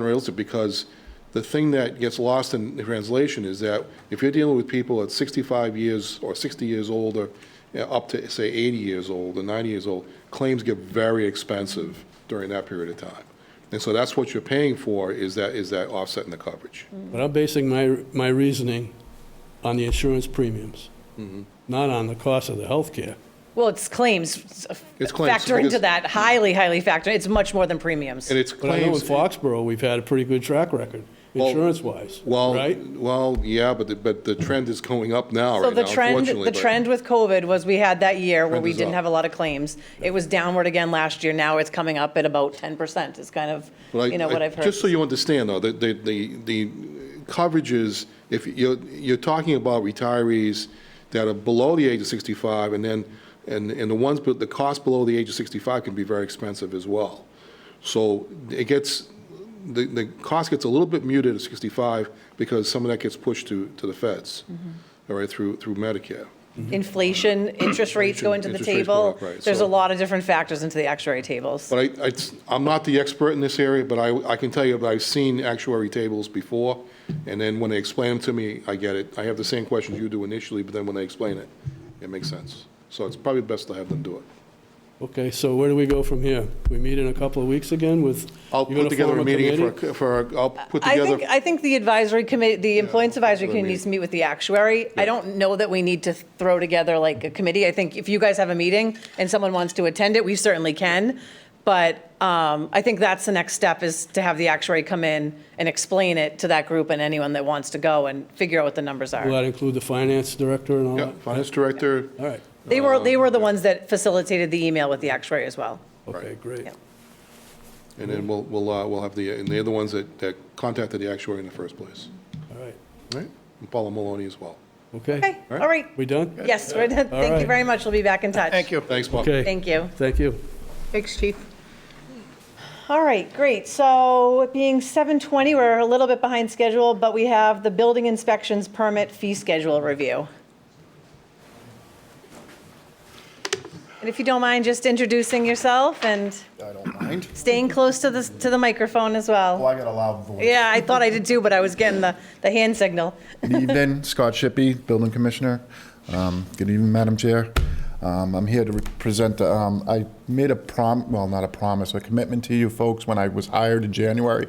unrealistic because the thing that gets lost in translation is that if you're dealing with people at 65 years or 60 years old or you know, up to, say, 80 years old or 90 years old, claims get very expensive during that period of time. And so that's what you're paying for, is that, is that offset in the coverage. But I'm basing my, my reasoning on the insurance premiums, Mm-hmm. not on the cost of the healthcare. Well, it's claims f- It's claims, factor because- into that, highly, highly factor. It's much more than premiums. And it's But I know in claims, Foxborough, we've had a pretty good track record, Well- insurance-wise, well, right? well, yeah, but, the- but the trend is going up now, So right now, the trend, unfortunately. the but- trend with COVID was we had that year where Trend we is didn't up. have a lot of claims. It was downward again last year. Now it's coming up at about 10%. It's kind of, But I- you know, what I- I've heard. Just so you understand, though, the, the, the the coverages, if you're, you're talking about retirees that are below the age of 65, and then, and, and the ones, but the cost below the age of 65 can be very expensive as well. So it gets, the, the cost gets a little bit muted at 65 because some of that gets pushed to, to the feds, Mm-hmm. all right, through, through Medicare. Inflation, interest rates go into the Interest rates go table. up, right, There's a so- lot of different factors into the actuary tables. But I- I, it's- I'm not the expert in this area, but I, I can tell you, that I've seen actuary tables before, and then when they explain them to me, I get it. I have the same questions you do initially, but then when they explain it, it makes sense. So it's probably best to have them do it. Okay, so where do we go from here? We meet in a couple of weeks again with? I'll you're gonna put together form a meeting committee? for, for, I'll put I together. think, I think the advisory committee, the Employment that's Advisory what I Committee mean. needs to meet with the actuary. I don't know that we need to throw together like a committee. I think if you guys have a meeting and someone wants to attend it, we certainly can. But um, I think that's the next step, is to have the actuary come in and explain it to that group and anyone that wants to go and figure out what the numbers Will are. that include the finance director and all Yeah, that? finance director, All right, They were, they were the um, ones that facilitated the email with the actuary as well. okay, great. Yeah. and then we'll, we'll, uh, we'll have the, and they're the ones that, that contacted the actuary in the first place. All right, All right? And Paula Maloney as well. okay. Okay, all right. We done? Yes, we're done. All Thank you right. very much. We'll be back in touch. Thank you. Thanks, Bob. Okay. Thank you. Thank you. Thanks, chief. All right, great. So it being 7:20, we're a little bit behind schedule, but we have the building inspections permit fee schedule review. And if you don't mind just introducing yourself and I don't mind. staying close to the, to the microphone as Well, well. I got a loud voice. Yeah, I thought I did too, but I was getting the, the hand signal. Good evening, Scott Shippey, Building Commissioner. Um, Good evening, Madam Chair. Um, I'm here to represent, um, I made a prom, well, not a promise, a commitment to you folks when I was hired in January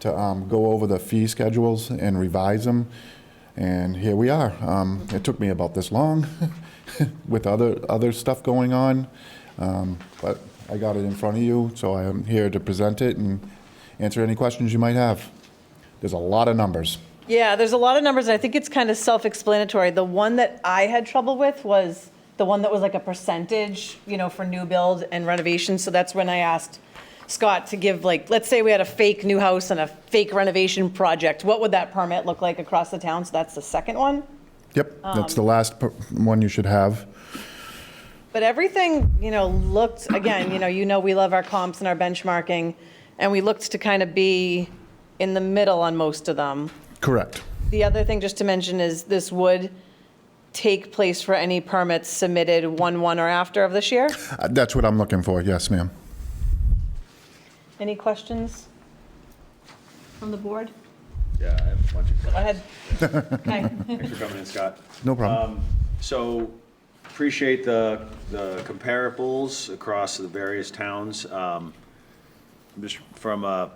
to um, go over the fee schedules and revise them, and here we are. Um, It took me about this long with other, other stuff going on, um, but I got it in front of you, so I am here to present it and answer any questions you might have. There's a lot of numbers. Yeah, there's a lot of numbers. and I think it's kind of self-explanatory. The one that I had trouble with was the one that was like a percentage, you know, for new build and renovation. So that's when I asked Scott to give like, let's say we had a fake new house and a fake renovation project. What would that permit look like across the town? So that's the second one. Yep, that's the last per- one you should have. But everything, you know, looked, again, you know, you know we love our comps and our benchmarking, and we looked to kind of be in the middle on most of them. Correct. The other thing just to mention is this would take place for any permits submitted 1-1 or after of this year. Uh, That's what I'm looking for, yes, ma'am. Any questions from the board? Yeah, I have a bunch of Go ahead. Okay. Thanks for coming in, Scott. No problem. So appreciate the, the comparables across the various towns. Um, Just from a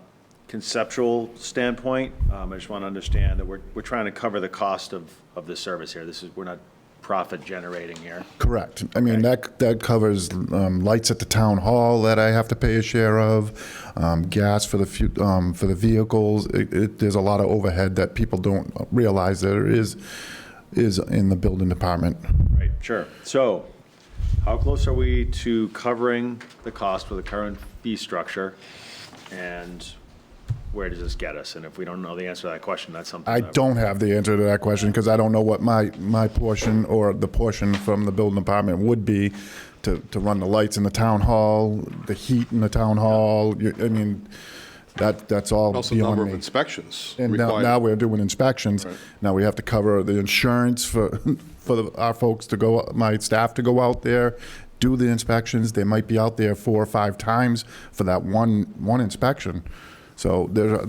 conceptual standpoint, um, I just want to understand that we're, we're trying to cover the cost of, of the service here. This is, we're not profit generating here. Correct. I mean, that, that covers um, lights at the town hall that I have to pay a share of, um, gas for the, fu- um, for the vehicles. It- it- There's a lot of overhead that people don't realize there is, is in the building department. Right, sure. So how close are we to covering the cost with the current fee structure? And where does this get us? And if we don't know the answer to that question, that's something. I that- don't have the answer to that question because I don't know what my, my portion or the portion from the building department would be to, to run the lights in the town hall, the heat in the town hall. You- I mean, that, that's all Also, number beyond of me. inspections And now, required. now we're doing inspections. Now we have to cover the insurance for, for the- our folks to go, my staff to go out there, do the inspections. They might be out there four or five times for that one, one inspection. So there,